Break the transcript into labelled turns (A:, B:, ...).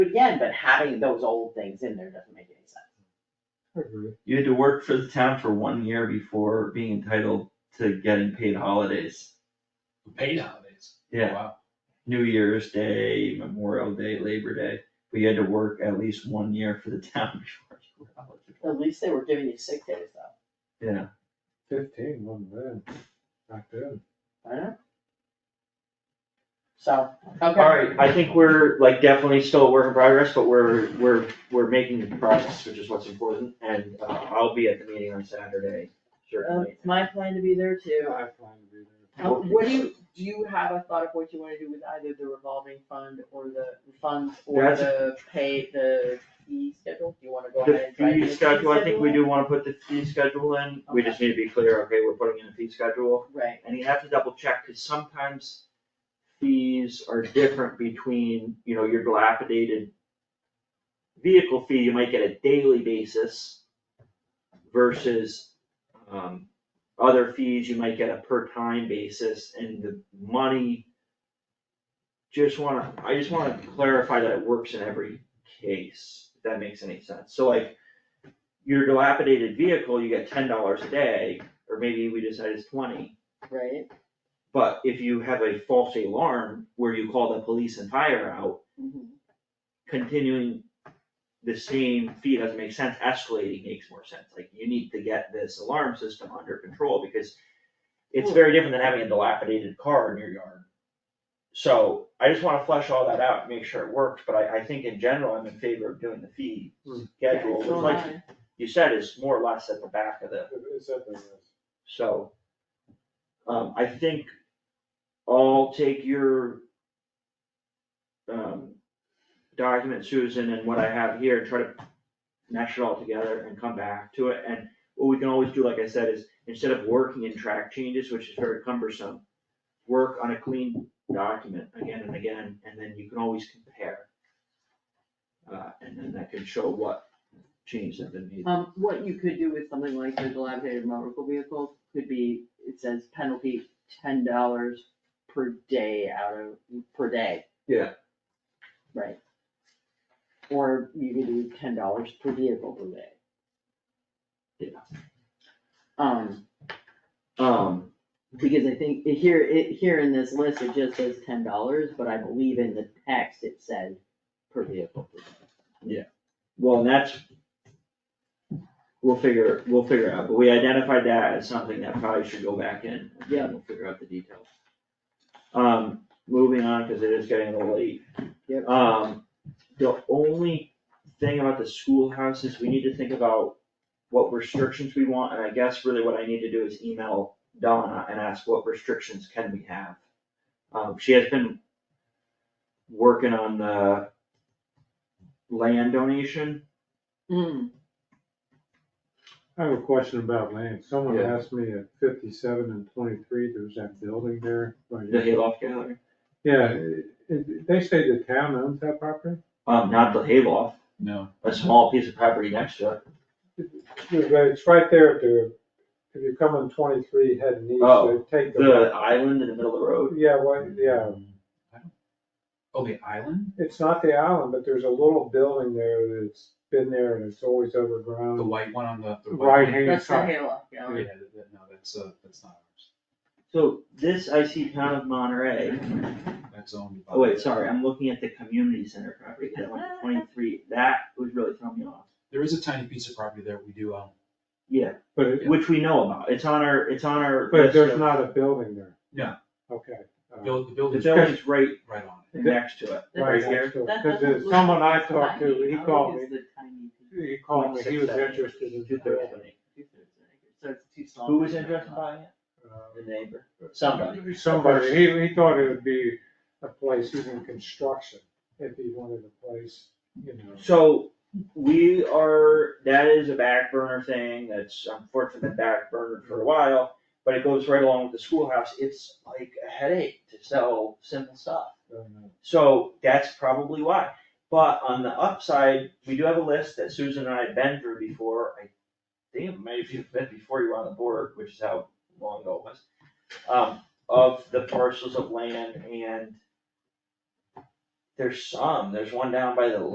A: again, but having those old things in there doesn't make any sense.
B: You had to work for the town for one year before being entitled to getting paid holidays.
C: Paid holidays.
B: Yeah,
C: Wow.
B: New Year's Day, Memorial Day, Labor Day, but you had to work at least one year for the town before you were eligible.
A: At least they were giving you sick days though,
B: Yeah,
D: Fifteen, wasn't bad, back then.
A: I know. So, okay.
E: Alright, I think we're like definitely still a work in progress, but we're, we're, we're making progress, which is what's important, and uh, I'll be at the meeting on Saturday,
A: Uh,
E: certainly.
A: It's my plan to be there too.
D: I plan to be there.
A: Uh, What do you, do you have a thought of what you wanna do with either the revolving fund or the funds or
E: That's-
A: the pay, the fee schedule? Do you wanna go ahead
E: The
A: and try to
E: fee
A: get a
E: schedule, I think we
A: schedule?
E: do wanna put the fee schedule in, we just need to be clear, okay, we're putting in a fee schedule,
A: Right,
E: and you have to double check, cause sometimes fees are different between, you know, your dilapidated vehicle fee, you might get a daily basis versus um, other fees you might get a per time basis and the money. Just wanna, I just wanna clarify that it works in every case, if that makes any sense. So like, your dilapidated vehicle, you get ten dollars a day, or maybe we decide it's twenty.
A: right,
E: But if you have a false alarm where you call the police and fire out,
D: Mm-hmm.
A: Mhm.
E: continuing the same fee doesn't make sense, escalating makes more sense, like you need to get this alarm system under control, because it's
D: Hmm.
E: very different than having a dilapidated car in your yard. So I just wanna flesh all that out, and make sure it works, but I, I think in general, I'm in favor of doing the fee
D: Hmm.
E: schedule, which
D: Yeah, it's
E: like
A: fine.
E: you said, is more or less at the back of the
D: It's at the list.
E: so, um, I think I'll take your um, document, Susan, and what I have here, and try to mesh it all together and come back to it, and what we can always do, like I said, is instead of working in track changes, which is very cumbersome, work on a clean document again and again, and then you can always compare. Uh, and then that can show what changes have been made.
A: Um, what you could do with something like the dilapidated motor vehicle could be, it says penalty ten dollars per day out of, per day.
E: Yeah.
A: Right. Or you could do ten dollars per vehicle per day.
E: Yeah.
A: Um,
E: Um,
A: because I think here, it, here in this list, it just says ten dollars, but I believe in the text it said per vehicle per day.
E: Well, and that's, we'll figure, we'll figure out, but we identified that as something that probably should go back in. and then
A: Yeah.
E: We'll figure out the details. Um, moving on, cause it is getting a little late.
A: Yep.
E: Um, the only thing about the schoolhouse is we need to think about what restrictions we want, and I guess really what I need to do is email Donna and ask what restrictions can we have. Um, she has been working on the land donation.
A: Mm,
D: I have a question about land. Someone
E: Yeah.
D: asked me at fifty-seven and twenty-three, there's that building there. by
E: The
D: you.
E: Hayloft Gallery?
D: Yeah, it- it- they say the town owns that property?
E: Um, not the Hayloft,
C: No.
E: a small piece of property next to it.
D: Yeah, but It's right there at the, if you come on twenty-three heading east,
E: Oh,
D: they take the.
E: The island in the middle of the road?
D: Yeah, well, yeah,
C: Oh, the island?
D: it's not the island, but there's a little building there that's been there and it's always
C: The
D: overgrown.
C: white one on the. the white
D: Um, Right
C: one?
D: hand
A: That's the
D: side.
A: Halo, yeah.
C: Yeah, that- that- no, that's, uh, that's not ours.
E: So this I see town of Monterey.
C: That's owned by.
E: Oh wait, sorry, I'm looking at the community center property, that one twenty-three, that was really throwing me off.
C: There is a tiny piece of property there we do um, own.
E: Yeah,
D: But, it-
E: which we know about. It's on our, it's on our
D: but
E: list
D: there's
E: of-
D: not a building there.
C: No.
D: Okay. uh,
C: Build, the
E: The
C: building's
E: building's right
C: right on it.
E: next to it,
A: That
E: right
A: doesn't-
E: here.
A: That
D: Because
A: doesn't look
D: someone I
A: tiny.
D: talked to, he
A: How big
D: called
A: is
D: me,
A: the tiny piece?
D: he called me, he was interested in.
E: Two thirds of it.
A: So it's too small.
E: Who was interested in buying it?
D: Uh,
E: The neighbor, somebody.
D: Somebody, he, he thought it would be a place even construction, if he wanted a place, you know.
E: So we are, that is a back burner thing, that's unfortunately been back burner for a while, but it goes right along with the schoolhouse, it's like a headache to sell simple stuff.
D: um,
E: So that's probably why, but on the upside, we do have a list that Susan and I have been through before, I think it may have been before you were on the board, which is how long ago it was. Um, of the parcels of land and there's some, there's one down by the